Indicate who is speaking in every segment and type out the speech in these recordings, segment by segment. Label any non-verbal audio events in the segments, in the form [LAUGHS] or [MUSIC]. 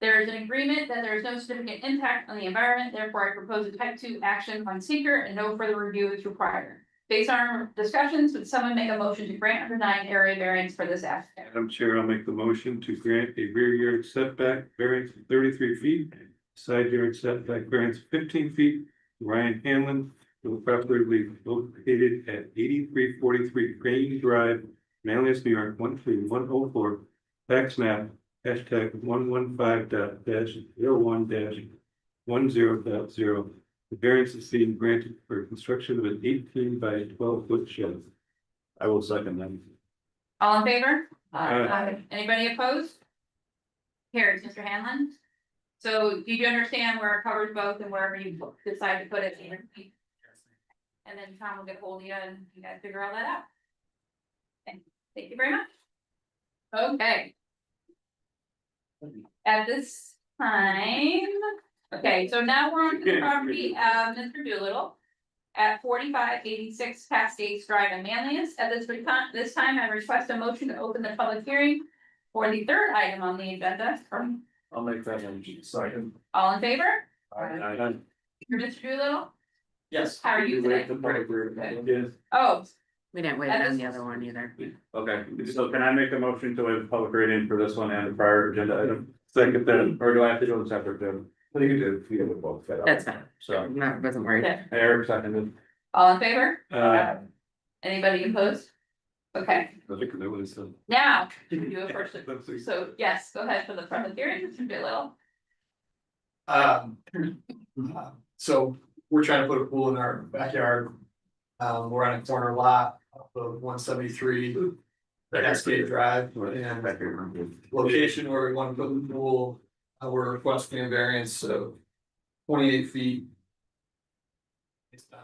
Speaker 1: There is an agreement that there is no significant impact on the environment, therefore I propose a type two action on seeker and no further review is required. Based on our discussions, would someone make a motion to grant or deny an area variance for this applicant?
Speaker 2: Madam Chair, I'll make the motion to grant a rear yard setback variance of thirty-three feet, side yard setback variance of fifteen feet. Ryan Hanlon for the property located at eighty-three forty-three Crane Drive, Manlius, New York, one three one oh four. Tax map, hashtag one one five dot dash zero one dash one zero dot zero. The variance is being granted for construction of an eighteen by twelve foot shed. I will second that.
Speaker 1: All in favor?
Speaker 2: Aye.
Speaker 1: Anybody opposed? Carries, Mr. Hanlon. So do you understand where it covers both and wherever you decide to put it in? And then Tom will get hold of you and you guys figure all that out. Thank- Thank you very much. Okay. At this time, okay, so now we're on to the property of Mr. Doolittle. At forty-five eighty-six Cascades Drive in Manlius. At this recon, this time I request a motion to open the public hearing. For the third item on the agenda, from
Speaker 2: I'll make that motion, second.
Speaker 1: all in favor,
Speaker 2: Aye.
Speaker 1: Mr. Doolittle,
Speaker 3: Yes.
Speaker 1: how are you today?
Speaker 2: Yes.
Speaker 1: Oh,
Speaker 4: We didn't wait on the other one either.
Speaker 3: Okay, so can I make a motion to waive public reading for this one and the prior agenda item,
Speaker 2: Second then.
Speaker 3: or do I have to do them separate, Jim?
Speaker 2: What do you do?
Speaker 3: Yeah, we both fit.
Speaker 4: That's fine.
Speaker 3: So,
Speaker 4: Not, wasn't worried.
Speaker 1: okay.
Speaker 3: Eric seconded.
Speaker 1: all in favor,
Speaker 2: Uh,
Speaker 1: anybody opposed? Okay,
Speaker 2: I think that was, uh,
Speaker 1: now, you can do it first,
Speaker 2: that was-
Speaker 1: so yes, go ahead for the public hearing, Mr. Doolittle.
Speaker 5: Um, uh, so we're trying to put a pool in our backyard. Um, we're on a corner lot of one seventy-three Cascade Drive and location where we want to put the pool. Uh, we're requesting a variance of twenty-eight feet. Based on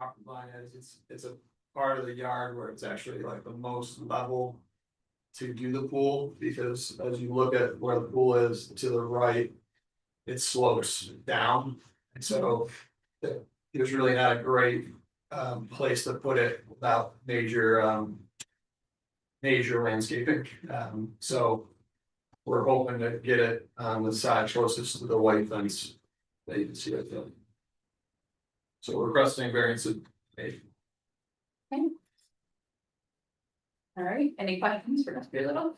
Speaker 5: property line is, it's, it's a part of the yard where it's actually like the most level to do the pool, because as you look at where the pool is to the right, it slopes down, and so the- there's really not a great um place to put it without major um major landscaping, um, so we're hoping to get it on the side closest to the white fence that you can see right there. So we're requesting variance of eight.
Speaker 1: All right, any questions for Mr. Doolittle?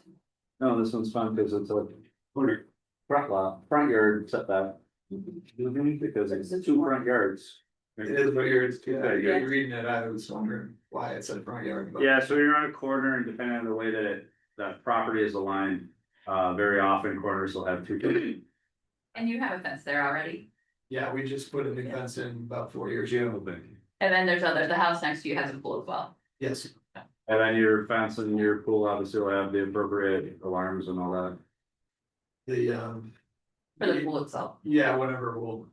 Speaker 3: No, this one's fun because it's a corner, front lot, front yard setback,
Speaker 2: Mm-hmm.
Speaker 3: because it's two front yards.
Speaker 5: It is what you're, yeah,
Speaker 1: Yeah.
Speaker 5: you're reading it, I was wondering why it said front yard, but.
Speaker 3: Yeah, so you're on a corner and depending on the way that it, that property is aligned, uh, very often corners will have
Speaker 5: [CLEARS THROAT]
Speaker 3: two.
Speaker 1: And you have a fence there already,
Speaker 5: Yeah, we just put a new fence in about four years ago,
Speaker 2: Yeah, but-
Speaker 1: and then there's other, the house next to you has a pool as well.
Speaker 5: yes,
Speaker 3: And then your fence and your pool obviously will have the appropriate alarms and all that.
Speaker 5: the um.
Speaker 1: For the pool itself.
Speaker 5: Yeah, whatever we'll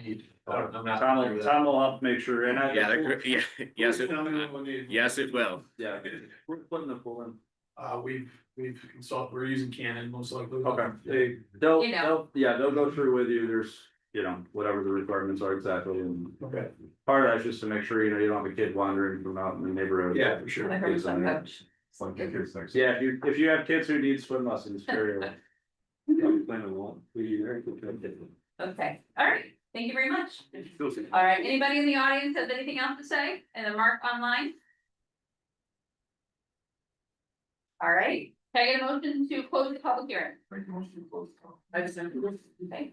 Speaker 5: need. I don't- I'm not
Speaker 3: Tom
Speaker 5: familiar
Speaker 3: will,
Speaker 5: with that.
Speaker 3: Tom will help make sure, and I.
Speaker 6: Yeah, they're gr- yeah, yes, it,
Speaker 5: Tell me what we need.
Speaker 6: yes, it will.
Speaker 3: Yeah, we're putting the pool in.
Speaker 5: Uh, we've, we've consulted, we're using Canon most likely.
Speaker 3: Okay, they, they'll,
Speaker 1: You know.
Speaker 3: they'll, yeah, they'll go through with you, there's, you know, whatever the requirements are exactly, and
Speaker 5: Okay,
Speaker 3: part of that's just to make sure, you know, you don't have a kid wandering from out in the neighborhood.
Speaker 5: yeah, for sure.
Speaker 1: I heard some coach.
Speaker 3: Yeah, if you, if you have kids who need swim lessons, sure. you'll-
Speaker 2: I'm playing along. We are good.
Speaker 1: Okay, all right, thank you very much. All right, anybody in the audience have anything else to say? And then Mark online? All right, can I get a motion to close the public hearing? I just. Okay,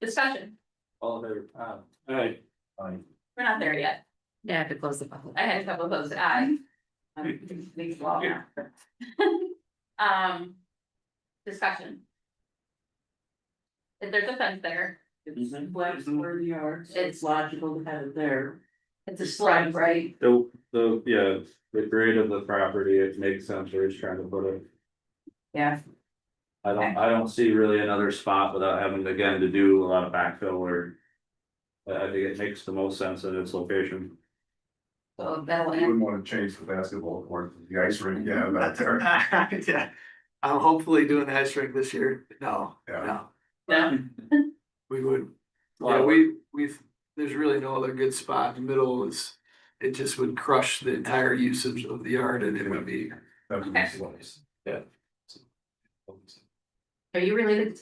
Speaker 1: discussion,
Speaker 3: All in favor? Ah,
Speaker 2: All right,
Speaker 1: we're not there yet.
Speaker 4: Yeah, I have to close the public.
Speaker 1: I had a couple of those Um, eyes. These long now. [LAUGHS] Um. Discussion. If there's a fence there,
Speaker 7: It's
Speaker 3: Mm-hmm.
Speaker 7: black square yards, it's logical to have it there.
Speaker 1: it's a slide, right?
Speaker 3: The, the, yeah, the grade of the property, it makes sense, we're just trying to put it.
Speaker 1: Yeah.
Speaker 3: I don't, I don't see really another spot without having again to do a lot of backfill or. I I think it makes the most sense in its location.
Speaker 1: So that'll
Speaker 8: You
Speaker 1: end.
Speaker 8: wouldn't wanna change the basketball court, to the ice rink, yeah, about
Speaker 5: [LAUGHS]
Speaker 8: there.
Speaker 5: Yeah, I'm hopefully doing the ice rink this year, no,
Speaker 8: Yeah.
Speaker 5: no,
Speaker 1: No.
Speaker 5: we would. Yeah, we, we've, there's really no other good spot, the middle is, it just would crush the entire usage of the yard and it would be.
Speaker 8: That would be nice.
Speaker 1: Are you related to